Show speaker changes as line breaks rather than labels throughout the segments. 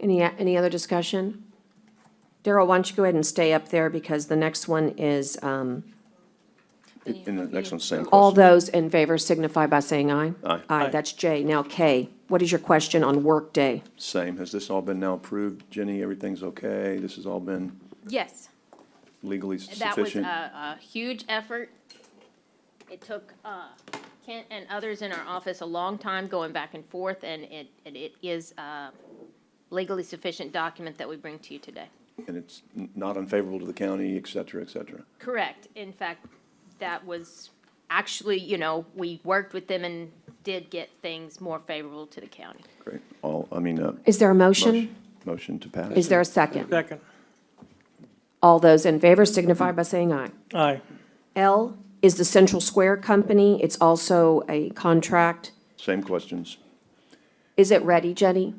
Any, any other discussion? Daryl, why don't you go ahead and stay up there because the next one is, um,
And the next one's same
all
question.
those in favor signify by saying aye.
Aye.
Aye, that's J. Now K, what is your question on workday?
Same. Has this all been now approved? Jenny, everything's okay? This has all been
Yes,
legally
that was uh, a,
sufficient?
a huge effort. It took, uh, Kent and others in our office a long time going back and forth, and it, and it is a legally sufficient document that we bring to you today.
And it's n- not unfavorable to the county, et cetera, et cetera?
Correct. In fact, that was actually, you know, we worked with them and did get things more favorable to the county.
Great. All, I mean, uh,
Is there a motion?
motion, motion to pass?
Is there a second?
Second.
All those in favor signify by saying aye.
Aye.
L is the Central Square Company. It's also a contract.
Same questions.
Is it ready, Jenny?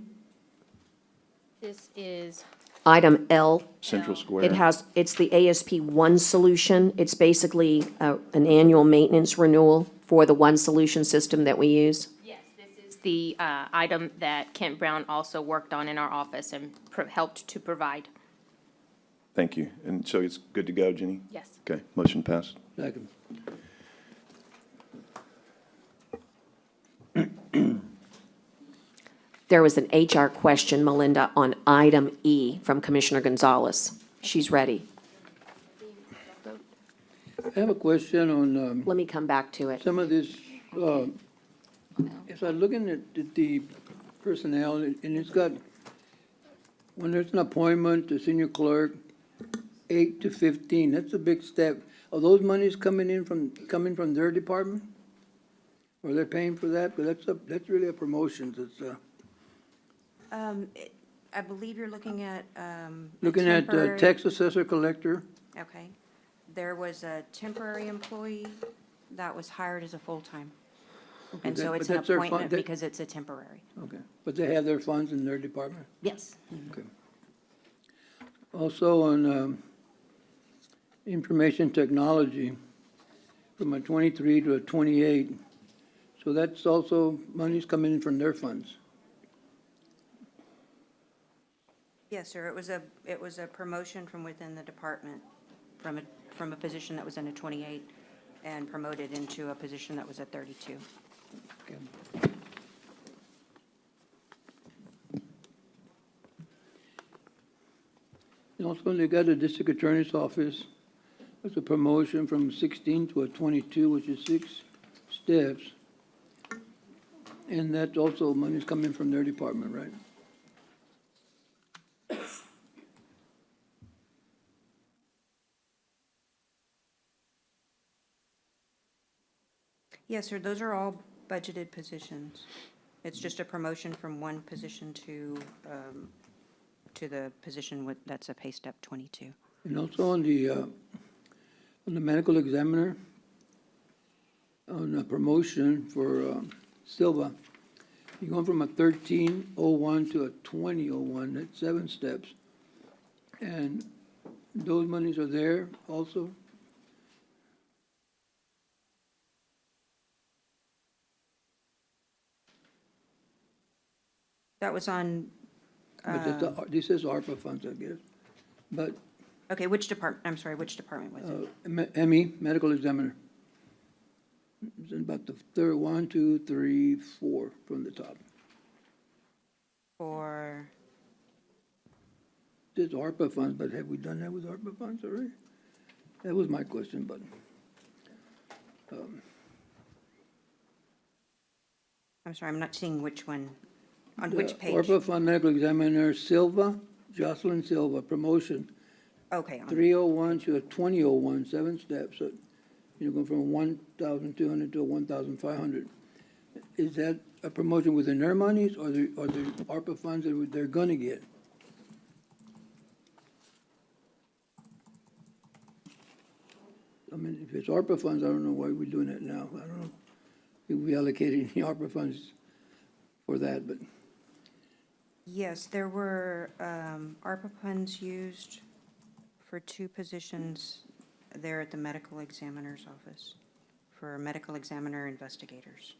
This is,
Item L.
Central
No.
Square.
It has, it's the ASP One Solution. It's basically uh, an annual maintenance renewal for the One Solution system that we use.
yes, this is the, uh, item that Kent Brown also worked on in our office and pro- helped to provide.
Thank you. And so it's good to go, Jenny?
Yes.
Okay, motion passed.
Second.
There was an HR question, Melinda, on item E from Commissioner Gonzalez. She's ready.
I have a question on um,
Let me come back to it.
some of this. um, If I'm looking at the- the personnel, and it's got, when there's an appointment, the senior clerk, eight to 15, that's a big step. Are those monies coming in from, coming from their department? Or they're paying for that? But that's, a- that's really a promotion. It's, uh,
Um, it- I believe you're looking at, um. a
looking at uh,
temporary-
tax assessor collector,
Okay. There was a temporary employee that was hired as a full-time. And
that-
so
but
it's an
that's their fun-
appointment
that-
because it's a temporary.
okay, but they have their funds in their department?
Yes.
Okay. Also on um, information technology, from a 23 to a 28. So that's also, money's coming in from their funds.
Yes, sir. It was a, it was a promotion from within the department, from a, from a position that was in a twenty-eight and promoted into a position that was a thirty-two.
Okay. And also, they got a district attorney's office, that's a promotion from 16 to a 22, which is six steps. And that also, money's coming from their department, right?
Yes, sir. Those are all budgeted positions. It's just a promotion from one position to, um, to the position with, that's a pay step twenty-two.
And also on the, uh, on the medical examiner, on a promotion for um, Silva, you're going from a thirteen oh one to a twenty oh one, that's seven steps. And those monies are there also?
That was on,
But that's the- this is ARPA funds, I guess. But
okay, which department, I'm sorry, which department was it?
uh, ME, medical examiner, it's about the third, one, two, three, four from the top. Uh,
For,
There's ARPA funds, but have we done that with ARPA funds already? That was my question, but
I'm sorry, I'm not seeing which one, on
Uh,
which page?
ARPA Fund Medical Examiner Silva, Jocelyn Silva, promotion,
Okay, on-
three oh one to a twenty oh one, seven steps. So You're going from one thousand two hundred to one thousand five hundred. Is that a promotion within their monies or the, or the ARPA funds that they're gonna get? I mean, if it's ARPA funds, I don't know why we're doing it now. I don't know if we allocated any ARPA funds for that, but.
yes, there were um, ARPA funds used for two positions there at the medical examiner's office, for medical examiner investigators.